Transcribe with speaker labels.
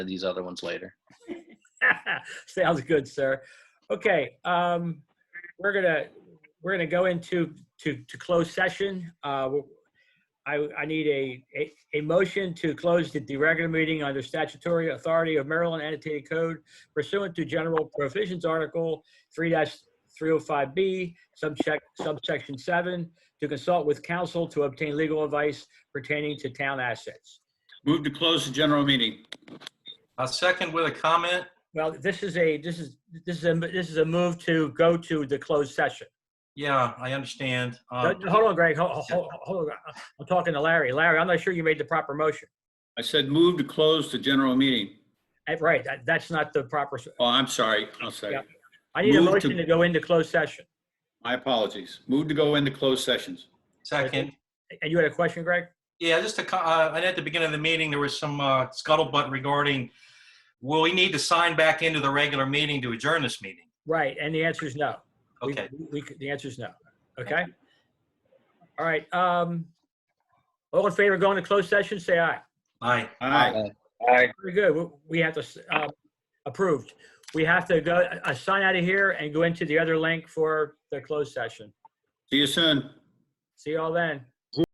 Speaker 1: these other ones later.
Speaker 2: Sounds good, sir. Okay, um, we're gonna, we're gonna go into, to, to close session. Uh, I, I need a, a, a motion to close the the regular meeting under statutory authority of Maryland annotated code pursuant to general provisions article three three oh five B, subcheck, subsection seven, to consult with counsel to obtain legal advice pertaining to town assets.
Speaker 3: Move to close the general meeting.
Speaker 4: A second with a comment.
Speaker 2: Well, this is a, this is, this is a, this is a move to go to the closed session.
Speaker 4: Yeah, I understand.
Speaker 2: No,
Speaker 3: Uh,
Speaker 4: Um,
Speaker 2: no, Hold on, Greg, hold, hold, hold on. I'm talking to Larry. Larry, I'm not sure you made the proper motion.
Speaker 3: I said move to close the general meeting.
Speaker 2: Eh, Right, that, that's not the proper, s-
Speaker 3: Oh, I'm sorry. I'll say, it.
Speaker 2: I need a
Speaker 3: Move to-
Speaker 2: motion to go into closed session.
Speaker 3: my apologies. Move to go into closed sessions.
Speaker 4: Second.
Speaker 2: And you had a question, Greg?
Speaker 4: Yeah, just to, co- uh, and at the beginning of the meeting, there was some uh, scuttlebutt regarding, will we need to sign back into the regular meeting to adjourn this meeting?
Speaker 2: Right, and the answer is no. We-
Speaker 4: Okay,
Speaker 2: We, could- the answer is no, okay? All right, um, all in favor of going to closed session, say aye.
Speaker 4: aye.
Speaker 3: Aye.
Speaker 1: Uh,
Speaker 2: Very good, We- we have to, s- um, approved. We have to go, uh, sign out of here and go into the other link for the closed session.
Speaker 3: See you soon.
Speaker 2: See y'all then.